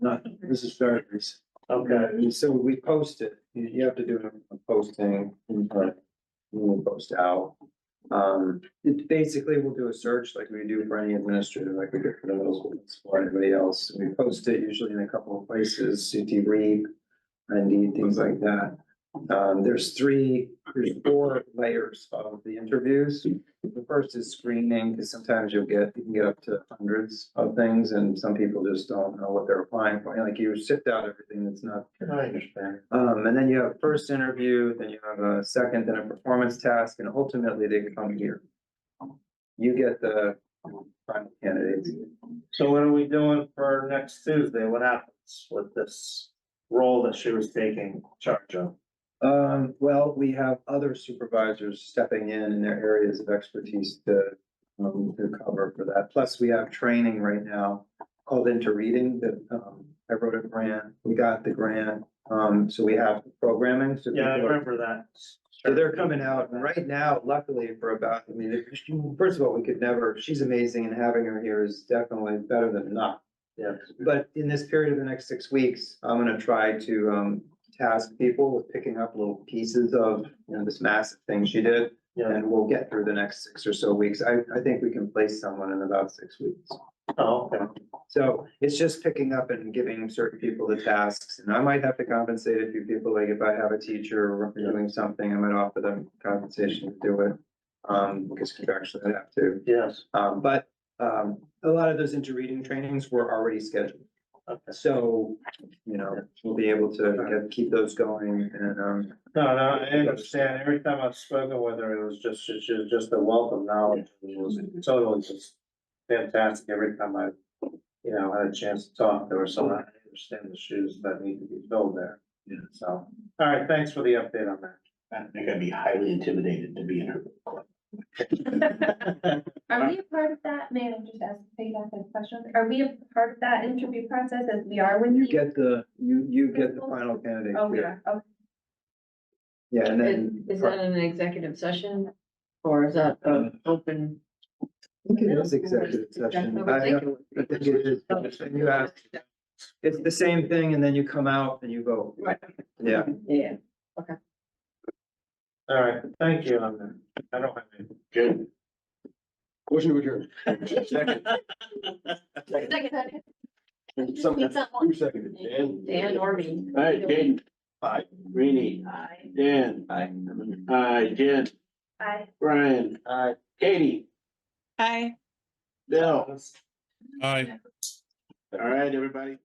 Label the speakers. Speaker 1: not, this is Fairgrounds.
Speaker 2: Okay,
Speaker 1: So we post it, you, you have to do a posting, but we'll post out. Um, it basically, we'll do a search like we do for any administrative, like we do for the middle school, for anybody else. We post it usually in a couple of places, CT Read, Indeed, things like that. Um, there's three, there's four layers of the interviews. The first is screening, because sometimes you'll get, you can get up to hundreds of things, and some people just don't know what they're applying for. Like you sift out everything that's not
Speaker 2: I understand.
Speaker 1: um, and then you have first interview, then you have a second, then a performance task, and ultimately they come here. You get the final candidates.
Speaker 2: So what are we doing for next Tuesday? What happens with this role that she was taking charge of?
Speaker 1: Um, well, we have other supervisors stepping in in their areas of expertise to, um, to cover for that. Plus, we have training right now called Into Reading that, um, I wrote a grant, we got the grant, um, so we have programming. so
Speaker 2: Yeah, I
Speaker 1: people are-
Speaker 2: remember that.
Speaker 1: So they're coming out, and right now, luckily for about, I mean, if she- first of all, we could never, she's amazing and having her here is definitely better than not.
Speaker 2: Yeah.
Speaker 1: But in this period of the next six weeks, I'm gonna try to um task people with picking up little pieces of, you know, this massive thing she did.
Speaker 2: Yeah,
Speaker 1: And we'll get through the next six or so weeks. I I think we can place someone in about six weeks.
Speaker 2: oh, okay.
Speaker 1: So it's just picking up and giving certain people the tasks, and I might have to compensate a few people, like if I have a teacher doing something, I might offer them compensation to do it. Um, because contractually I have to,
Speaker 2: Yes,
Speaker 1: um, but, um, a lot of those interreading trainings were already scheduled.
Speaker 2: okay.
Speaker 1: So, you know, we'll be able to get, keep those going and, um,
Speaker 2: No, no, I understand. Every time I've spoken with her, it was just, she she was just a wealth of knowledge. It was totally just fantastic. Every time I, you know, had a chance to talk to her, so I understand the shoes that need to be filled there.
Speaker 3: Yeah.
Speaker 2: So, all right, thanks for the update on that.
Speaker 3: I think I'd be highly intimidated to be in her. club.
Speaker 4: Are we a part of that, may I just ask, take that question, are we a part of that interview process as we are when
Speaker 1: you
Speaker 4: you?
Speaker 1: get the, you, you get the final candidate.
Speaker 4: Oh, we
Speaker 1: here.
Speaker 4: are, okay,
Speaker 1: Yeah, and then.
Speaker 5: Is that an executive session or is that an open?
Speaker 1: I think it is executive session.
Speaker 5: I would
Speaker 1: I-
Speaker 5: think it would
Speaker 1: I
Speaker 5: be.
Speaker 1: think it is. And you ask, It's the same thing and then you come out and you vote.
Speaker 5: Right.
Speaker 1: Yeah,
Speaker 5: Yeah,
Speaker 2: All right, thank you on that. I don't have any.
Speaker 3: Good. Motion to adjourn. Second. Someone, who seconded? Dan?
Speaker 5: Dan or me.
Speaker 3: All right, Jane. Aye. Rainey.
Speaker 5: Aye.
Speaker 3: Dan. Aye. Aye, Jen.
Speaker 4: I,
Speaker 3: Brian. Aye. Katie.
Speaker 6: Hi.
Speaker 3: Bill.
Speaker 7: All right.
Speaker 3: All right, everybody.